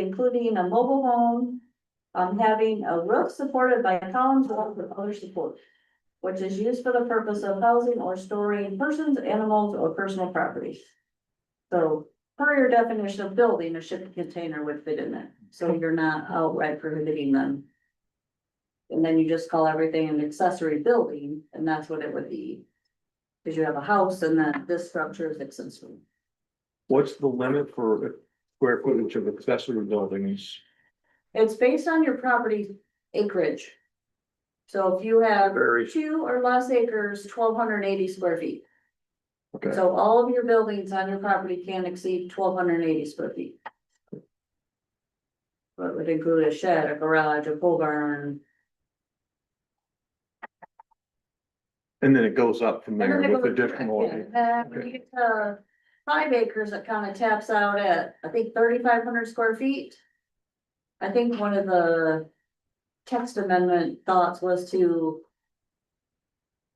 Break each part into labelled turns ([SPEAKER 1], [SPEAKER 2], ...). [SPEAKER 1] including a mobile home. Um, having a roof supported by columns, walls, or other support. Which is used for the purpose of housing or storing persons, animals, or personal property. So per your definition of building, a shipping container would fit in that, so you're not outright prohibiting them. And then you just call everything an accessory building, and that's what it would be. Cause you have a house and then this structure is accessory.
[SPEAKER 2] What's the limit for square footage of accessory buildings?
[SPEAKER 1] It's based on your property acreage. So if you have
[SPEAKER 2] Very.
[SPEAKER 1] two or less acres, twelve hundred and eighty square feet.
[SPEAKER 2] Okay.
[SPEAKER 1] So all of your buildings on your property can exceed twelve hundred and eighty square feet. But would include a shed, a garage, a pole barn,
[SPEAKER 2] And then it goes up from
[SPEAKER 1] And
[SPEAKER 2] there
[SPEAKER 1] then it
[SPEAKER 2] with
[SPEAKER 1] goes-
[SPEAKER 2] additional.
[SPEAKER 1] yeah, then when you get to Five acres, it kind of taps out at, I think, thirty-five hundred square feet. I think one of the text amendment thoughts was to.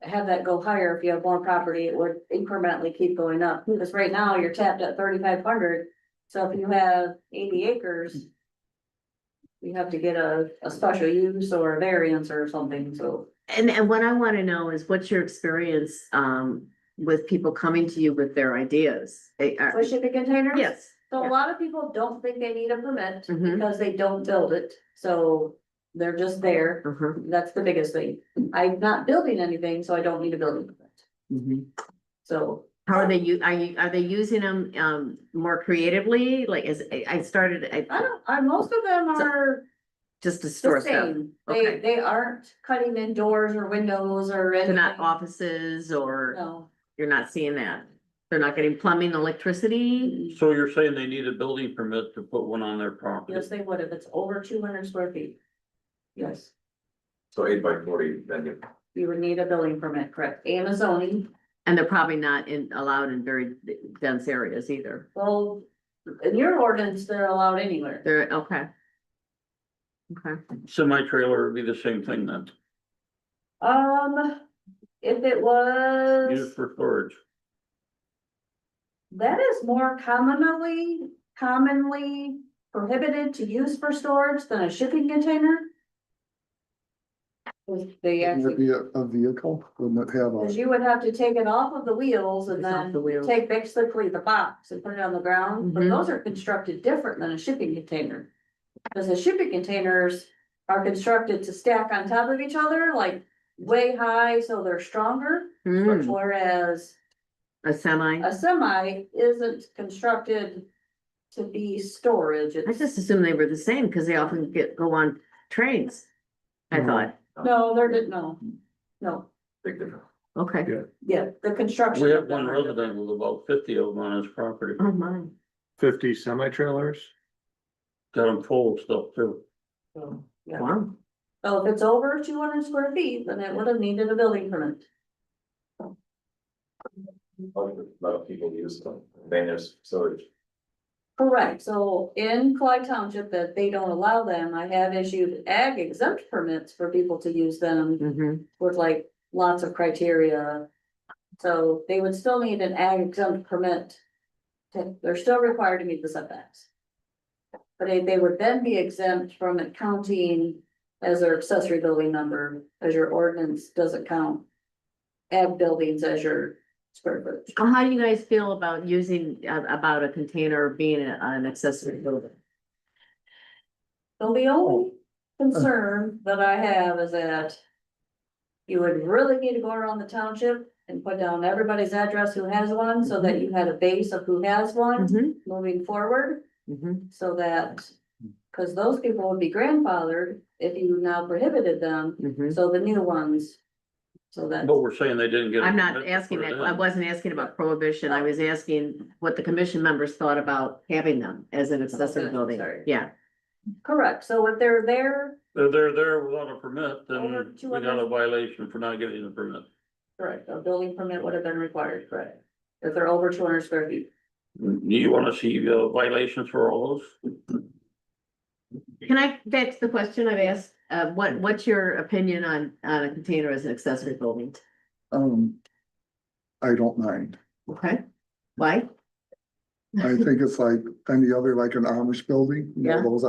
[SPEAKER 1] Have that go higher if you have more property, it would incrementally keep going up, because right now you're tapped at thirty-five hundred, so if you have eighty acres. You have to get a, a special use or a variance or something, so.
[SPEAKER 3] And, and what I want to know is what's your experience, um, with people coming to you with their ideas? Eh, are-
[SPEAKER 1] So shipping containers?
[SPEAKER 3] Yes.
[SPEAKER 1] So a
[SPEAKER 3] Yeah.
[SPEAKER 1] lot of people don't think they need a permit
[SPEAKER 3] Mhm.
[SPEAKER 1] because they don't build it, so they're just there.
[SPEAKER 3] Uh-huh.
[SPEAKER 1] That's the biggest thing. I'm not building anything, so I don't need a building permit.
[SPEAKER 2] Mm-hmm.
[SPEAKER 1] So
[SPEAKER 3] How are they, u- are you, are they using them, um, more creatively? Like, is, I- I started,
[SPEAKER 1] I
[SPEAKER 3] I,
[SPEAKER 1] don't, I, most of them
[SPEAKER 3] So-
[SPEAKER 1] are
[SPEAKER 3] just to
[SPEAKER 1] the
[SPEAKER 3] store stuff.
[SPEAKER 1] same.
[SPEAKER 3] Okay.
[SPEAKER 1] They, they aren't cutting in doors or windows or
[SPEAKER 3] They're
[SPEAKER 1] anything.
[SPEAKER 3] not offices or
[SPEAKER 1] No.
[SPEAKER 3] you're not seeing that. They're not getting plumbing, electricity.
[SPEAKER 4] So you're saying they need a building permit to put one on their property?
[SPEAKER 1] Yes, they would if it's over two hundred square feet. Yes,
[SPEAKER 5] So eight by forty, then you.
[SPEAKER 1] you would need a building permit, correct? And a zoning.
[SPEAKER 3] And they're probably not in, allowed in very dense areas either.
[SPEAKER 1] Well, in your ordinance, they're allowed anywhere.
[SPEAKER 3] They're, okay. Okay,
[SPEAKER 4] Semi trailer would be the same thing then,
[SPEAKER 1] Um, if it
[SPEAKER 4] used
[SPEAKER 1] was,
[SPEAKER 4] for storage.
[SPEAKER 1] that is more commonly, commonly prohibited to use for storage than a shipping container. 'Cause They
[SPEAKER 6] Wouldn't it
[SPEAKER 1] actually,
[SPEAKER 6] be a, a vehicle, wouldn't it have
[SPEAKER 1] cause
[SPEAKER 6] a,
[SPEAKER 1] you would have to take it off of the wheels and
[SPEAKER 3] It's off
[SPEAKER 1] then
[SPEAKER 3] the wheels.
[SPEAKER 1] take basically the box and put it on the ground, but
[SPEAKER 3] Mhm.
[SPEAKER 1] those are constructed different than a shipping container. Cause the shipping containers are constructed to stack on top of each other, like way high, so they're stronger,
[SPEAKER 3] Hmm,
[SPEAKER 1] whereas
[SPEAKER 3] a semi.
[SPEAKER 1] a semi isn't constructed to be storage.
[SPEAKER 3] I
[SPEAKER 1] It's-
[SPEAKER 3] just assumed they were the same because they often get, go on trains. I
[SPEAKER 2] No.
[SPEAKER 3] thought,
[SPEAKER 1] No, there didn't, no, no,
[SPEAKER 5] Big difference.
[SPEAKER 3] okay,
[SPEAKER 1] yeah, the construction.
[SPEAKER 4] We
[SPEAKER 1] of
[SPEAKER 4] have
[SPEAKER 1] them
[SPEAKER 4] one
[SPEAKER 1] are
[SPEAKER 4] resident
[SPEAKER 1] different.
[SPEAKER 4] with about fifty of them on his property,
[SPEAKER 3] oh my,
[SPEAKER 2] Fifty semi trailers?
[SPEAKER 4] got them full of stuff too.
[SPEAKER 1] So, yeah.
[SPEAKER 3] wow.
[SPEAKER 1] So if it's over two hundred square feet, then it would have needed a building permit.
[SPEAKER 5] A lot of people use them, then there's storage.
[SPEAKER 1] Correct, so in Clyde Township, that they don't allow them, I have issued ag exempt permits for people to use them.
[SPEAKER 3] Mhm.
[SPEAKER 1] with like lots of criteria. So they would still need an ag exempt permit. to- They're still required to meet the setbacks. But they, they would then be exempt from it counting as their accessory building number, as your ordinance doesn't count. Ag buildings as your square footage.
[SPEAKER 3] Well, How do you guys feel about using, uh, about a container being a- an accessory building?
[SPEAKER 1] So the only concern that I have is that. You would really need to go around the township and put down everybody's address who has one, so that you had a base of who has one.
[SPEAKER 3] Mhm,
[SPEAKER 1] moving forward
[SPEAKER 3] mhm.
[SPEAKER 1] so that, because those people would be grandfathered if you now prohibited them,
[SPEAKER 3] mhm.
[SPEAKER 1] so the new ones. So that,
[SPEAKER 4] But we're saying they didn't get. a
[SPEAKER 3] I'm not
[SPEAKER 4] permit to
[SPEAKER 3] asking
[SPEAKER 4] put it
[SPEAKER 3] that, I
[SPEAKER 4] in.
[SPEAKER 3] wasn't asking about prohibition, I was asking what the commission members thought about having them as an accessory
[SPEAKER 1] Okay,
[SPEAKER 3] building,
[SPEAKER 1] sorry.
[SPEAKER 3] yeah.
[SPEAKER 1] correct, so if they're there,
[SPEAKER 4] If they're there without a permit,
[SPEAKER 1] Over
[SPEAKER 4] then we
[SPEAKER 1] 200.
[SPEAKER 4] got a violation for not getting the permit.
[SPEAKER 1] correct, a building permit would have been required, correct? If they're over two hundred square feet,
[SPEAKER 4] Do you wanna see uh, violations for all those?
[SPEAKER 3] Can I, that's the question I've asked, uh, what, what's your opinion on, on a container as an accessory building?
[SPEAKER 6] um, I don't mind.
[SPEAKER 3] Okay, why?
[SPEAKER 6] I think it's like any other, like an Amish building, you know,
[SPEAKER 3] Yeah.
[SPEAKER 6] those